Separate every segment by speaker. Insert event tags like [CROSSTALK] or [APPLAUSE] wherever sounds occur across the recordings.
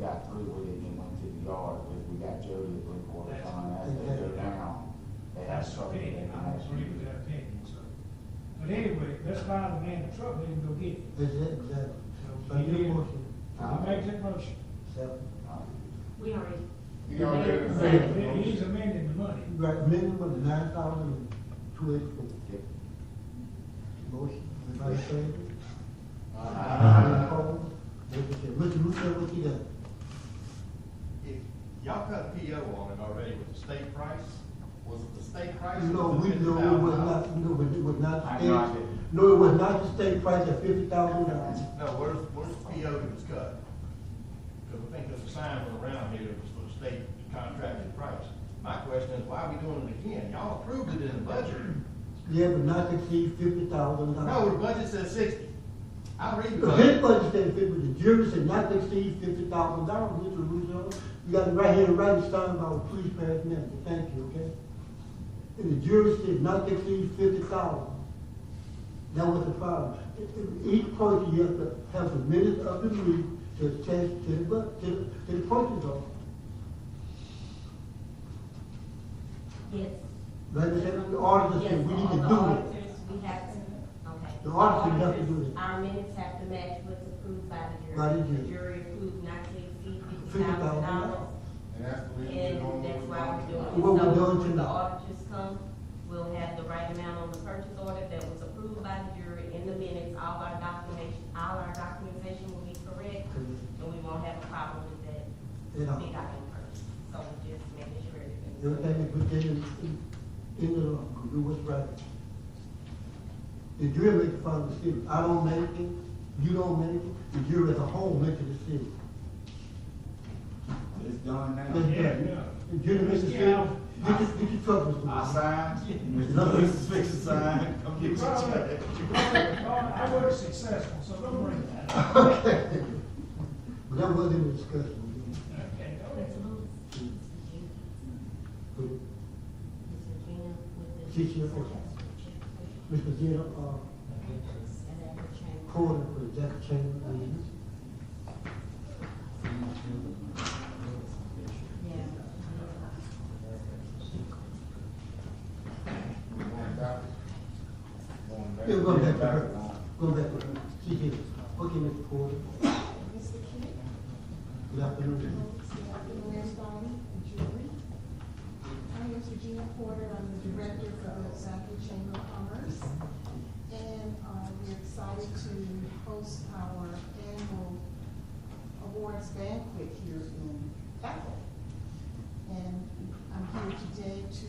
Speaker 1: got through with it and went to the yard, because we got Jody at three quarter time, as they go down, they have
Speaker 2: That's
Speaker 1: trouble.
Speaker 2: okay,
Speaker 1: getting
Speaker 2: I
Speaker 1: that.
Speaker 2: agree with that opinion, so. But anyway, let's find the man in trouble, let him go get it.
Speaker 3: Exactly. So you motion,
Speaker 1: Uh,
Speaker 2: I make that motion.
Speaker 3: second.
Speaker 1: uh,
Speaker 4: We already.
Speaker 5: You already did the
Speaker 4: Second.
Speaker 5: same.
Speaker 2: He's amending the
Speaker 3: [LAUGHS]
Speaker 2: money.
Speaker 3: Right, minimum of nine thousand two eighty-four.
Speaker 1: Yep.
Speaker 3: Motion, everybody favor?
Speaker 5: Aye.
Speaker 3: Uh-huh. Mr. Russo, what you got?
Speaker 5: If y'all cut a PO on it already with the state price, was it the state price? or
Speaker 3: No,
Speaker 5: was
Speaker 3: we,
Speaker 5: it
Speaker 3: no, it was
Speaker 5: $50,000?
Speaker 3: not, no, it was not the
Speaker 1: I
Speaker 3: state.
Speaker 1: knocked it.
Speaker 3: No, it was not the state price at fifty thousand dollars.
Speaker 5: No, where's, where's the PO that was cut? Because I think there's a sign went around here that was for the state contracted price. My question is, why are we doing it again? Y'all approved it in the budget.
Speaker 3: Yeah, but not to exceed fifty thousand
Speaker 5: No, the
Speaker 3: dollars.
Speaker 5: budget says sixty. I read the
Speaker 3: His
Speaker 5: budget.
Speaker 3: budget said fifty, the jury said not to exceed fifty thousand dollars, Mr. Russo. You got it right here, right in stone about please pass minutes, thank you, okay? And the jury said not to exceed fifty thousand. That was the problem. Each person, you have to have the minutes of the meeting to attach to the, bu- to the, to the purchase order.
Speaker 4: Yes.
Speaker 3: Like I said, the auditor said, we need to
Speaker 4: Yes, all the
Speaker 3: do it.
Speaker 4: auditors, we have to, okay.
Speaker 3: The auditors have to do it.
Speaker 4: Our minutes have to match what's approved by the jury.
Speaker 3: By the jury.
Speaker 4: approved not to exceed fifty thousand dollars.
Speaker 3: $50,000.
Speaker 5: And that's the reason we're
Speaker 4: And
Speaker 5: doing
Speaker 4: that's
Speaker 5: what
Speaker 4: why
Speaker 5: we're
Speaker 4: we're doing it.
Speaker 3: What we're doing
Speaker 4: So when The
Speaker 3: tonight.
Speaker 4: auditors come, we'll have the right amount on the purchase order that was approved by the jury in the minutes. All our documentation, all our documentation will be correct, and we won't have a problem with that.
Speaker 3: You know.
Speaker 4: Big item purchase. So we just making sure everything's.
Speaker 3: Everything is within, in the law, we do what's right. The jury makes the final decision, I don't make it, you don't make it, the jury as a whole makes the decision.
Speaker 1: It's done
Speaker 3: That's
Speaker 1: now.
Speaker 2: Yeah,
Speaker 3: right.
Speaker 2: yeah.
Speaker 3: The jury makes the
Speaker 2: Yeah.
Speaker 3: decision, get your, get your troubles.
Speaker 1: I
Speaker 3: Mr.
Speaker 1: signed, Mr. Mr. Fix signed, come get
Speaker 2: You
Speaker 1: your
Speaker 2: brought up-
Speaker 1: check.
Speaker 2: you brought up- I was successful, so don't worry about it.
Speaker 3: But that wasn't a discussion,
Speaker 2: Okay, don't worry.
Speaker 4: Let's move.
Speaker 3: but
Speaker 4: Mr. Gina with the.
Speaker 3: She- she- Mr. Zena, uh,
Speaker 4: And then the chain.
Speaker 3: Porter, for that change, please.
Speaker 4: Yeah.
Speaker 3: Yeah, go back to her, go back to her, she did, okay, Mr. Porter,
Speaker 6: Mr. Kent,
Speaker 3: good afternoon.
Speaker 6: Mr. Lansdowne, Julie. I'm Miss Regina Porter, I'm the director for the Zachary Chamber of Commerce. And uh, we're excited to host our annual awards banquet here in Bethel. And I'm here today to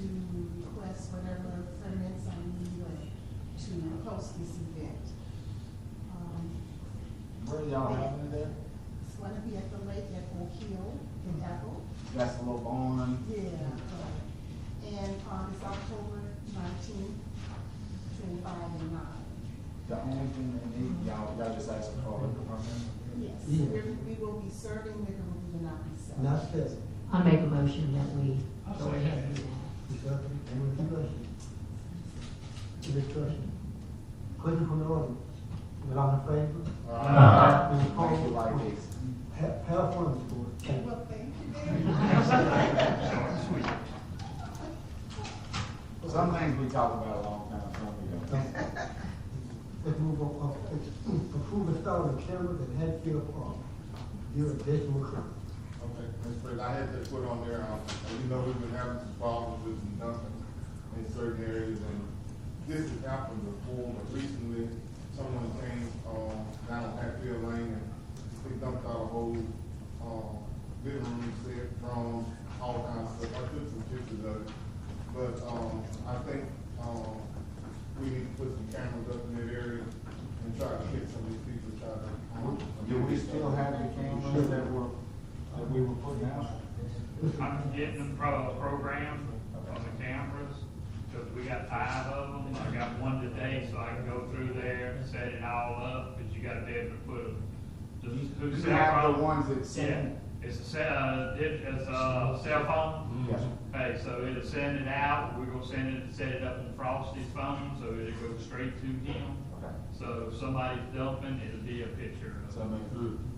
Speaker 6: request whatever permits I need uh, to host this event. Um,
Speaker 1: Where y'all having it there?
Speaker 6: It's gonna be at the lake at Oak Hill in Bethel.
Speaker 1: That's a little barn.
Speaker 6: Yeah. uh, And, um, it's October nineteenth, between five and nine.
Speaker 1: The only thing they need, y'all, y'all just ask for a liquor permit.
Speaker 6: Yes.
Speaker 3: Yeah.
Speaker 6: We're- We will be serving liquor, we will not be selling.
Speaker 3: Now, Stephanie,
Speaker 7: I make a motion that we
Speaker 2: I'll
Speaker 7: go
Speaker 2: say
Speaker 7: ahead
Speaker 2: that.
Speaker 7: and do
Speaker 3: Any discussion? Any discussion? Question from the audience? Is all in favor? Any
Speaker 1: Make it
Speaker 3: opposed?
Speaker 1: like this.
Speaker 3: Have, have fun, Mr. Porter. Thank you.
Speaker 6: Well, thank you very much.
Speaker 1: Some things we talked about a long time ago.
Speaker 3: Let's move on, up. approve installing cameras at Hatfield Park. Your additional comment.
Speaker 8: Okay, Mr. President, I had to put on there, um, you know, we've been having some problems with some dumping in certain areas, and this has happened before, but recently, someone came, um, down Hatfield Lane, and they dumped out a whole, um, living room set, drums, all kinds of stuff, I took some pictures of it, but, um, I think, um, we need to put some cameras up in that area and try to get some of these people, try to. um,
Speaker 1: Do we still have the cameras that were, that we were putting out?
Speaker 9: I'm getting them pro- programmed on the cameras, because we got five of them, I got one today, so I can go through there, set it all up, but you gotta be able to put them. the-
Speaker 1: You
Speaker 9: who's
Speaker 1: should have the
Speaker 9: cell phone-
Speaker 1: ones that
Speaker 9: Yeah,
Speaker 1: send.
Speaker 9: it's a cell, uh, it's a cell phone,
Speaker 1: Yes.
Speaker 9: okay, so it'll send it out, we're gonna send it, set it up in Frosty's phone, so it'll go straight to him.
Speaker 1: Okay.
Speaker 9: So if somebody's dumping, it'll be a picture of it.
Speaker 1: So I mean,